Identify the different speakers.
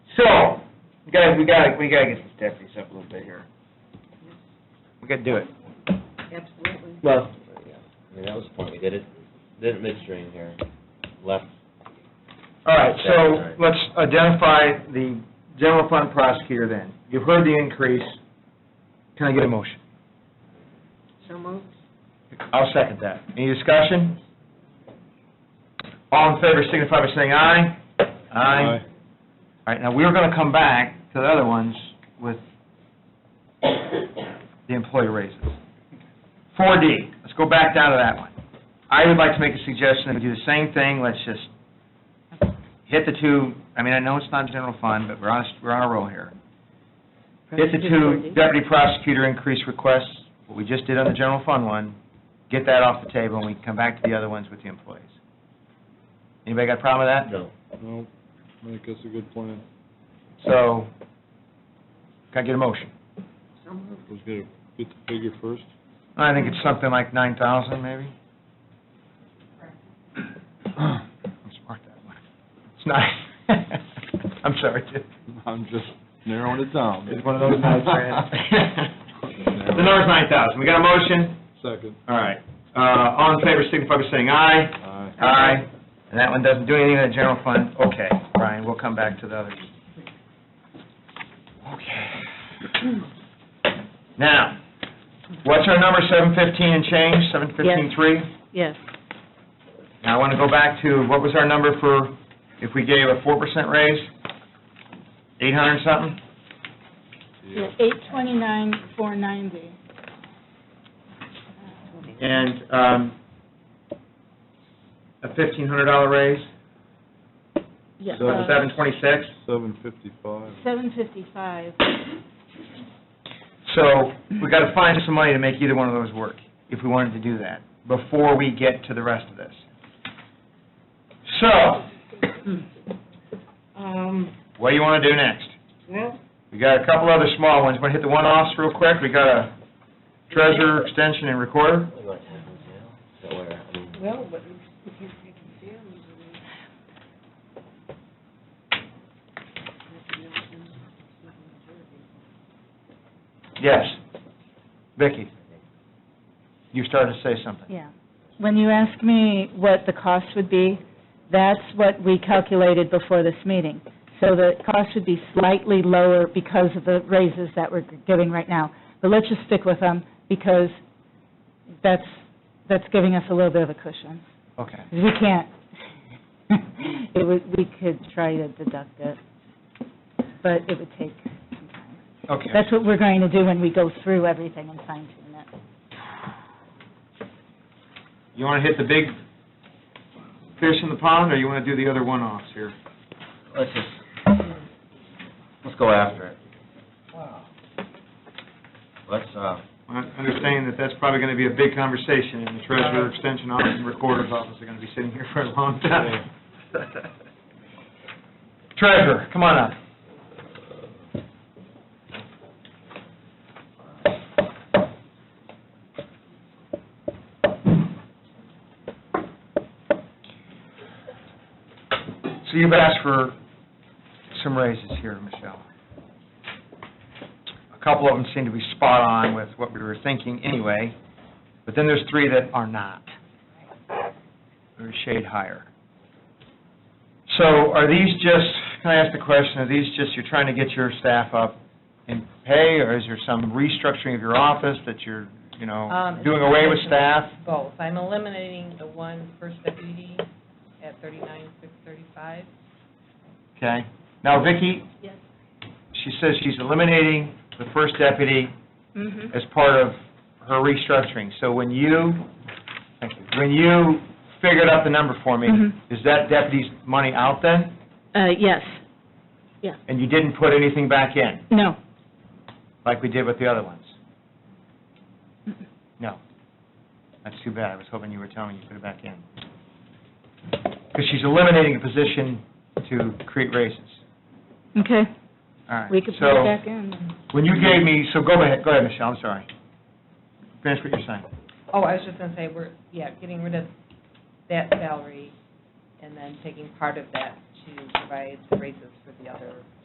Speaker 1: We gotta, we gotta, we gotta get these deputies up a little bit here. We gotta do it.
Speaker 2: Absolutely.
Speaker 1: Well.
Speaker 3: I mean, that was the point, we did it, did it midstream here, left,
Speaker 1: All right, so let's identify the general fund prosecutor then. You've heard the increase. Can I get a motion?
Speaker 2: So moved.
Speaker 1: I'll second that. Any discussion? All in favor signify by saying aye. Aye. All right, now, we're going to come back to the other ones with the employee raises. 4D, let's go back down to that one. I would like to make a suggestion, that we do the same thing, let's just hit the two, I mean, I know it's not general fund, but we're on, a- we're on a roll here. Hit the two deputy prosecutor increase requests, what we just did on the general fund one, get that off the table, and we can come back to the other ones with the employees. Anybody got a problem with that?
Speaker 3: no.
Speaker 4: No, I think that's a good plan.
Speaker 1: So, can I get a motion?
Speaker 2: So moved.
Speaker 4: Let's get, a- get the figure first.
Speaker 1: I think it's something like nine thousand, maybe. I'm smart that way. It's nice. I'm sorry, Jim.
Speaker 4: I'm just narrowing it down.
Speaker 1: It's one of those nights, man. The number's nine thousand. We got a motion?
Speaker 4: Second.
Speaker 1: All right. Uh, all in favor, signify by saying aye.
Speaker 4: Aye.
Speaker 1: Aye. And that one doesn't do anything in the general fund. Okay, Brian, we'll come back to the others. Okay. Now, what's our number, seven fifteen and change, seven fifteen three?
Speaker 2: Yes.
Speaker 1: Now, I want to go back to, what was our number for, if we gave a four percent raise? Eight hundred something?
Speaker 4: Yeah.
Speaker 5: Eight twenty-nine, four ninety.
Speaker 1: And, um, a fifteen hundred dollar raise?
Speaker 5: Yes.
Speaker 1: So it's seven twenty-six?
Speaker 4: Seven fifty-five.
Speaker 5: Uh, Seven fifty-five.
Speaker 1: So we got to find some money to make either one of those work, if we wanted to do that, before we get to the rest of this. So,
Speaker 2: Hmm. Um,
Speaker 1: what do you want to do next?
Speaker 2: well,
Speaker 1: We got a couple other small ones. Want to hit the one-offs real quick? We got a treasurer, extension, and recorder.
Speaker 3: What happens now? So where, I mean,
Speaker 2: well, but if you can see them,
Speaker 1: Yes. Vicki, you started to say something.
Speaker 5: Yeah. When you ask me what the cost would be, that's what we calculated before this meeting. So the cost would be slightly lower because of the raises that we're giving right now. But let's just stick with them because that's, that's giving us a little bit of a cushion.
Speaker 1: Okay.
Speaker 5: We can't, it would, we could try to deduct it, but it would take some time.
Speaker 1: Okay.
Speaker 5: That's what we're going to do when we go through everything and fine tune it.
Speaker 1: You want to hit the big fish in the pond, or you want to do the other one-offs here?
Speaker 3: let's just, let's go after it. Let's, uh,
Speaker 1: I understand that that's probably going to be a big conversation, and the treasurer, extension office, and recorder's office are going to be sitting here for a long time.
Speaker 3: uh,
Speaker 1: Treasurer, come on up. So you've asked for some raises here, Michelle. A couple of them seem to be spot on with what we were thinking anyway, but then there's three that are not. They're a shade higher. So are these just, can I ask the question, are these just, you're trying to get your staff up in pay, or is there some restructuring of your office that you're, you know,
Speaker 6: Um,
Speaker 1: doing away with staff?
Speaker 6: Both. I'm eliminating the one first deputy at thirty-nine, six thirty-five.
Speaker 1: Okay. Now, Vicki?
Speaker 6: Yes.
Speaker 1: She says she's eliminating the first deputy
Speaker 6: Mm-hmm.
Speaker 1: as part of her restructuring. So when you, thank you, when you figured out the number for me,
Speaker 5: Mhm.
Speaker 1: is that deputy's money out then?
Speaker 5: Uh, yes,
Speaker 1: And you didn't put anything back in,
Speaker 5: no,
Speaker 1: like we did with the other ones? No. That's too bad. I was hoping you were telling me you put it back in. Because she's eliminating a position to create raises.
Speaker 5: okay,
Speaker 1: All right.
Speaker 5: we could put
Speaker 1: So-
Speaker 5: it back in.
Speaker 1: When you gave me, so go ahead, go ahead, Michelle, I'm sorry. Finish what you're saying.
Speaker 6: Oh, I was just gonna say, we're, yeah, getting rid of that salary and then taking part of that to provide the raises for the other